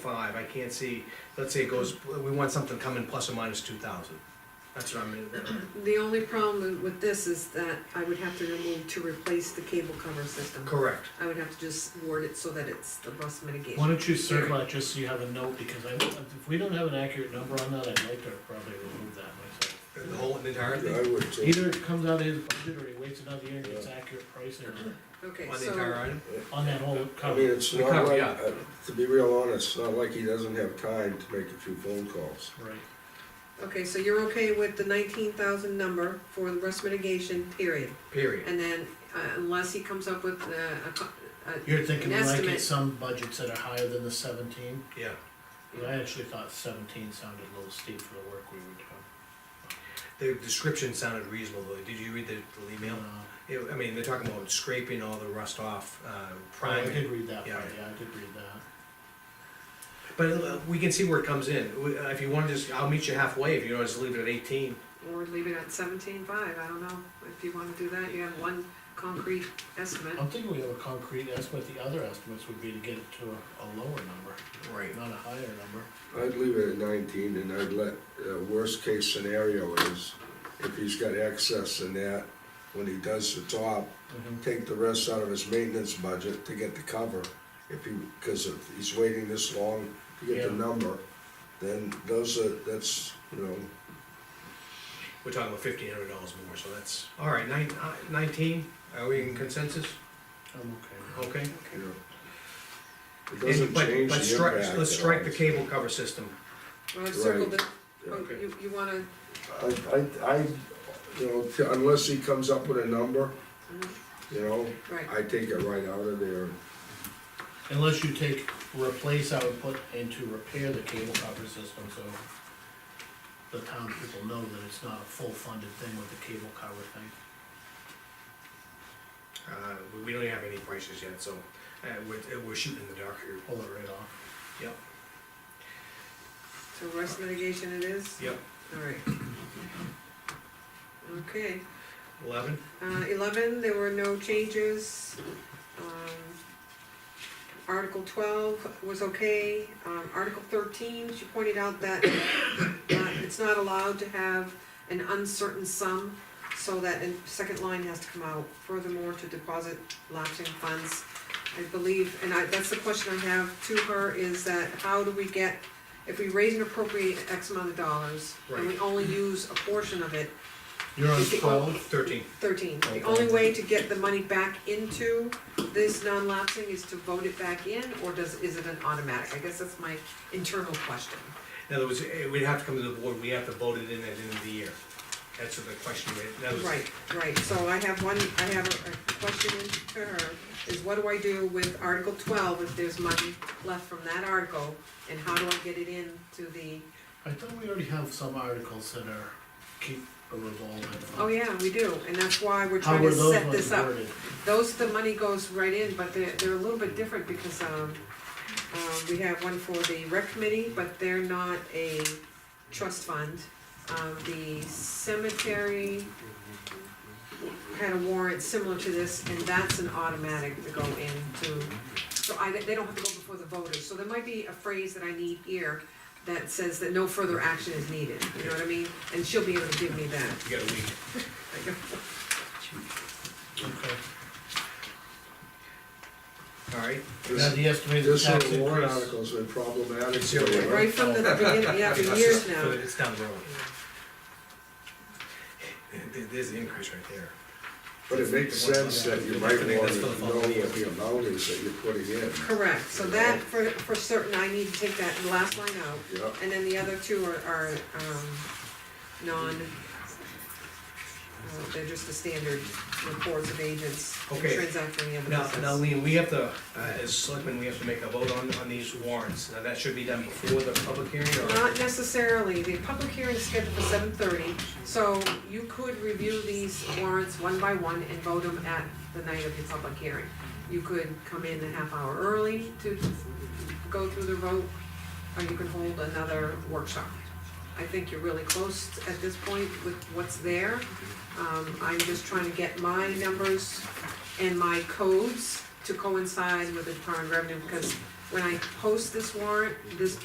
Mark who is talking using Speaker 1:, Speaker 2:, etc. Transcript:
Speaker 1: five, I can't see, let's say it goes, we want something coming plus or minus two thousand. That's what I'm,
Speaker 2: The only problem with this is that I would have to remove to replace the cable cover system.
Speaker 1: correct.
Speaker 2: I would have to just word it so that it's the rust mitigation.
Speaker 3: Why don't you circle that just so you have a note, because I, if we don't have an accurate number on that, I'd like to probably remove that myself.
Speaker 1: The whole, the entire
Speaker 4: Yeah,
Speaker 1: thing,
Speaker 4: I would too.
Speaker 3: Either it comes out of his budget or he waits another year and gets accurate pricing on it,
Speaker 2: Okay,
Speaker 1: on the entire
Speaker 2: so,
Speaker 1: item?
Speaker 3: on that whole
Speaker 4: I mean,
Speaker 3: cover.
Speaker 4: it's
Speaker 1: We
Speaker 4: not
Speaker 1: cover-
Speaker 4: like,
Speaker 1: yeah.
Speaker 4: uh, to be real honest, it's not like he doesn't have time to make a few phone calls.
Speaker 3: Right,
Speaker 2: okay, so you're okay with the nineteen thousand number for the rust mitigation period?
Speaker 1: Period.
Speaker 2: And then, uh, unless he comes up with uh, a, co- a,
Speaker 3: you're thinking
Speaker 2: An
Speaker 3: like
Speaker 2: estimate.
Speaker 3: it's some budgets that are higher than the seventeen,
Speaker 1: Yeah.
Speaker 3: Well, I actually thought seventeen sounded a little steep for the work we were
Speaker 1: The description sounded reasonable, though. Did you read the the
Speaker 3: doing.
Speaker 1: email?
Speaker 3: Uh,
Speaker 1: It- I mean, they're talking about scraping all the rust off, uh,
Speaker 3: Oh, I
Speaker 1: priming.
Speaker 3: did read that part,
Speaker 1: Yeah.
Speaker 3: yeah, I did read that,
Speaker 1: But uh, we can see where it comes in. We- uh, If you want to just, I'll meet you halfway, if you want to just leave it at eighteen.
Speaker 2: uh, or leave it at seventeen five, I don't know, if you wanna do that, you have one concrete estimate.
Speaker 3: I'm thinking we have a concrete estimate, the other estimates would be to get it to a, a lower number,
Speaker 1: Right.
Speaker 3: not a higher number.
Speaker 4: I'd leave it at nineteen and I'd let, uh, worst case scenario is if he's got excess in that, when he does the top,
Speaker 3: Mm-hmm.
Speaker 4: take the rest out of his maintenance budget to get the cover. If he, cause if he's waiting this long to get the
Speaker 3: Yeah.
Speaker 4: number, then those are, that's, you know,
Speaker 1: We're talking about fifteen hundred dollars more, so that's, all right, nine, uh, nineteen, are we
Speaker 3: Mm-hmm.
Speaker 1: in consensus?
Speaker 3: I'm okay.
Speaker 1: Okay.
Speaker 4: you know. It
Speaker 1: And-
Speaker 4: doesn't
Speaker 1: but-
Speaker 4: change the
Speaker 1: but strike-
Speaker 4: impact
Speaker 1: Let's
Speaker 4: at
Speaker 1: strike
Speaker 4: all.
Speaker 1: the cable cover system.
Speaker 2: Well, I've circled it,
Speaker 4: Yeah.
Speaker 2: oh, you, you wanna,
Speaker 4: I, I, I, you know, t- unless he comes up with a number, you know,
Speaker 2: right,
Speaker 4: I take it right out of there.
Speaker 3: Unless you take replace output and to repair the cable cover system, so the town people know that it's not a full funded thing with the cable cover thing.
Speaker 1: Uh, we- we don't have any prices yet, so, uh, we're, uh, we're shooting in the dark here.
Speaker 3: Pull it right off.
Speaker 1: Yep,
Speaker 2: so rust mitigation it is?
Speaker 1: yep.
Speaker 2: Alright. Okay,
Speaker 1: Eleven?
Speaker 2: uh, eleven, there were no changes. Um, Article twelve was okay, um, Article thirteen, she pointed out that, uh, it's not allowed to have an uncertain sum, so that in second line has to come out, furthermore, to deposit lapsing funds. I believe, and I, that's the question I have to her, is that how do we get, if we raise and appropriate X amount of dollars, and we only use a portion of it,
Speaker 3: You're on
Speaker 2: Is it all-
Speaker 3: twelve?
Speaker 1: Thirteen.
Speaker 2: Thirteen, the
Speaker 3: Okay.
Speaker 2: only way to get the money back into this non-lapsing is to vote it back in, or does, is it an automatic? I guess that's my internal question.
Speaker 1: In other words, eh, we'd have to come to the board, we have to vote it in at the end of the year. That's the question, we- that was.
Speaker 2: Right, right, so I have one, I have a a question to her, is what do I do with Article twelve if there's money left from that article? And how do I get it in to the,
Speaker 3: I thought we already have some articles that are keep a revolving. fund.
Speaker 2: oh yeah, we do, and that's why we're
Speaker 3: How
Speaker 2: trying
Speaker 3: were
Speaker 2: to
Speaker 3: those
Speaker 2: set
Speaker 3: ones
Speaker 2: this up.
Speaker 3: worded?
Speaker 2: Those, the money goes right in, but they're, they're a little bit different because, um, um, we have one for the rec committee, but they're not a trust fund. Um, the cemetery had a warrant similar to this, and that's an automatic to go into, so I, they don't have to go before the voters, so there might be a phrase that I need here that says that no further action is needed, you know what I mean? And she'll be able to give me that.
Speaker 1: You got a week.
Speaker 3: Okay.
Speaker 1: All right,
Speaker 3: Now,
Speaker 4: This,
Speaker 3: the estimated
Speaker 4: this
Speaker 3: tax
Speaker 4: whole warrant
Speaker 3: increase.
Speaker 4: article's been problematic.
Speaker 1: Zero.
Speaker 4: you know.
Speaker 2: Right from the beginning, yeah, for years now.
Speaker 1: so it's down the road. There- There's the increase right there.
Speaker 4: But it makes sense that you might
Speaker 1: Definitely,
Speaker 4: want
Speaker 1: that's
Speaker 4: to
Speaker 1: for
Speaker 4: know
Speaker 1: the following year.
Speaker 4: what the amount is that you're putting in.
Speaker 2: Correct, so that, for, for certain, I need to take that last line out,
Speaker 4: Yeah,
Speaker 2: and then the other two are, are, um, non, uh, they're just the standard reports of agents and
Speaker 1: Okay.
Speaker 2: transacting the other
Speaker 1: Now,
Speaker 2: business.
Speaker 1: now Lean, we have to, uh, as selectmen, we have to make a vote on, on these warrants. Now, that should be done before the public hearing or?
Speaker 2: Not necessarily, the public hearing is scheduled for seven thirty, so you could review these warrants one by one and vote them at the night of your public hearing. You could come in a half hour early to go through the vote, or you could hold another workshop. I think you're really close at this point with what's there. Um, I'm just trying to get my numbers and my codes to coincide with the current revenue, because when I post this warrant, this